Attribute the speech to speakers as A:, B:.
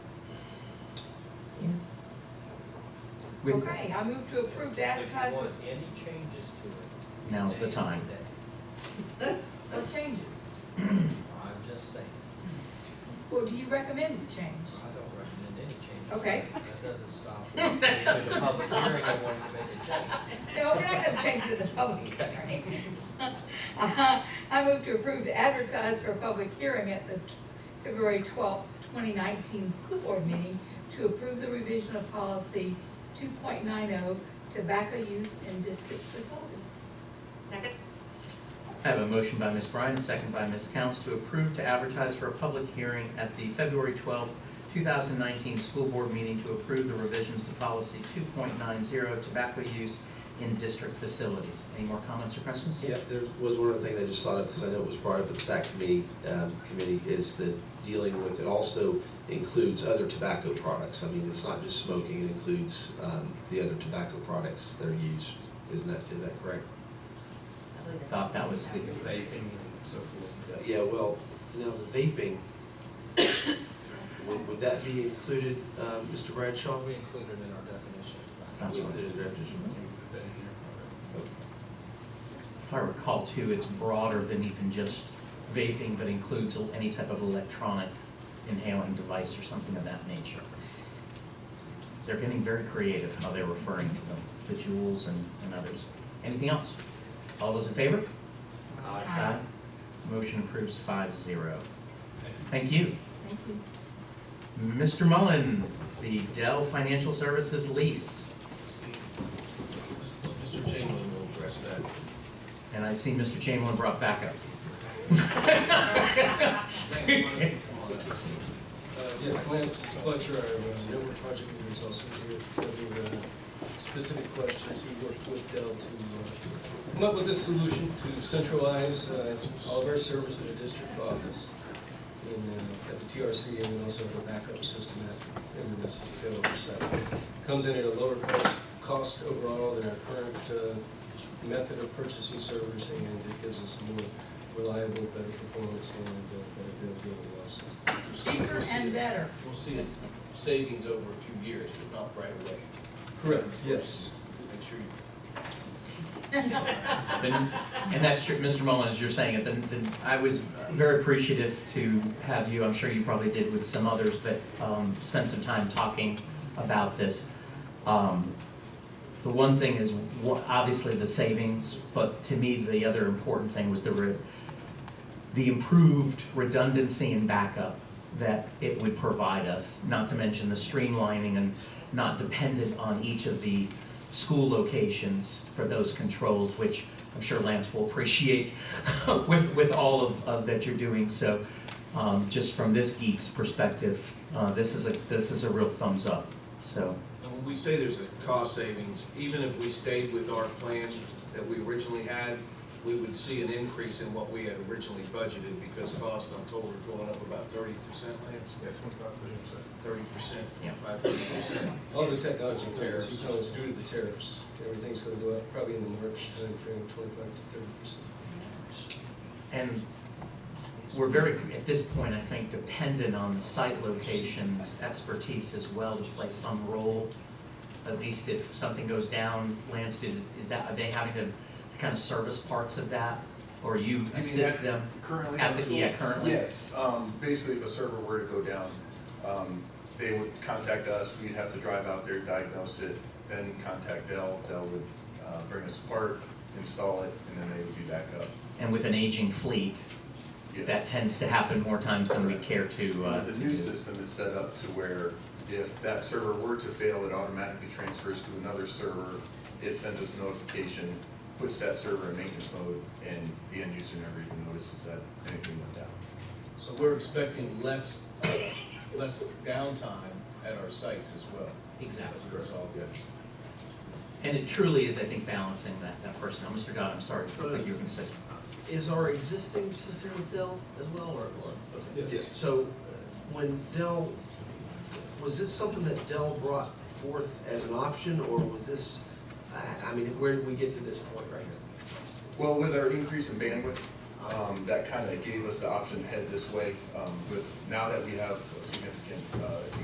A: with,
B: Okay, I move to approve the
C: If you
B: advertisement.
C: want any changes to it.
D: Now's the
C: change
D: time.
C: today.
B: No changes.
C: I'm just saying,
B: Well, do you recommend the change?
C: I don't recommend any changes.
B: Okay.
C: That doesn't stop. That doesn't stop. Hearing and wanting to make a change.
B: No, we're not gonna change it to the public hearing. I move to approve to advertise for a public hearing at the February twelfth, twenty nineteen school board meeting to approve the revision of policy two point nine oh tobacco use in district facilities.
E: Second?
D: I have a motion by Ms. Bryan, a second by Ms. Counts to approve to advertise for a public hearing at the February 12, 2019 school board meeting to approve the revisions to policy 2.90 tobacco use in district facilities. Any more comments or questions?
F: Yeah, there was one other thing that I just thought of, because I know it was brought up at the SAC committee, um, committee, is that dealing with, it also includes other tobacco products. I mean, it's not just smoking, it includes, um, the other tobacco products that are used. Isn't that, is that correct?
E: I believe that's-
D: Thought that was the-
C: Vaping and so forth.
F: Yeah, well, now the vaping, would, would that be included, um, Mr. Bradshaw?
C: We included in our definition. of tobacco.
D: That's right.
F: Included in the definition.
C: We've been here for
D: If I recall too, it's broader than even just vaping, but includes any type of electronic inhaling device or something of that nature. They're getting very creative how they're referring to them, the jewels and, and others. Anything else? All those in favor?
C: Aye.
B: Aye.
D: Motion approves five zero. Thank
C: Thank you.
D: you.
B: Thank you.
D: Mr. Mullen, the Dell Financial Services lease.
G: Mr. Chamberlain will address that.
D: And I see Mr. Chamberlain brought backup.
G: Uh, Yes, Lance Fletcher, our network project manager, is also here. If there are specific questions, he worked with Dell to uh, come up with this solution to centralize uh, all of our servers at a district office in, uh, at the TRC and then also the backup system at, in the message fail oversight. Comes in at a lower cost, cost overall than our current uh, method of purchasing servers, and it gives us more reliable, better performance and uh, better availability also.
B: Cheaper and better.
H: We'll see savings over a few years, but not right away.
G: Correct, yes.
H: Make sure you,
D: Then- And that's true, Mr. Mullen, as you're saying it, then, then I was very appreciative to have you, I'm sure you probably did with some others, but, um, spent some time talking about this. Um, The one thing is, wha- obviously the savings, but to me, the other important thing was the re- the improved redundancy and backup that it would provide us, not to mention the streamlining and not dependent on each of the school locations for those controls, which I'm sure Lance will appreciate with, with all of, of that you're doing. So, um, just from this geek's perspective, uh, this is a, this is a real thumbs up, so.
H: and when we say there's a cost savings, even if we stayed with our plan that we originally had, we would see an increase in what we had originally budgeted because costs on total are going up about thirty percent, Lance? Yeah, twenty-five percent. Thirty percent,
D: Yeah.
H: five, thirty percent.
G: All the technology
H: Tariffs.
G: tariffs, you tell us due to the tariffs, everything's gonna go up probably in the March timeframe, twenty-five to thirty percent.
D: And we're very, at this point, I think, dependent on the site location's expertise as well to play some role. At least if something goes down, Lance, is, is that, are they having to, to kind of service parts of that? Or you assist them?
I: Currently?
D: At
I: on
D: the-
I: schools?
D: yeah, currently.
I: Yes, um, basically if a server were to go down, um, they would contact us, we'd have to drive out there, diagnose it, then contact Dell, Dell would, uh, bring us a part, install it, and then they would be back up.
D: And with an aging fleet,
I: Yes.
D: that tends to happen more times than we care to, uh,
I: The
D: to
I: new
D: do.
I: system is set up to where if that server were to fail, it automatically transfers to another server. It sends us a notification, puts that server in maintenance mode, and the end user never even notices that anything went down.
H: So we're expecting less, less downtime at our sites as well.
D: Exactly.
H: As a result.
D: And it truly is, I think, balancing that, that personnel. Mr. God, I'm sorry, I thought you were gonna say.
F: Is our existing system with Dell as well, or? or-
G: Yes.
F: So, uh, when Dell, was this something that Dell brought forth as an option, or was this, I, I mean, where did we get to this point right here?
I: Well, with our increase in bandwidth, um, that kind of gave us the option to head this way. Um, With, now that we have a significant uh,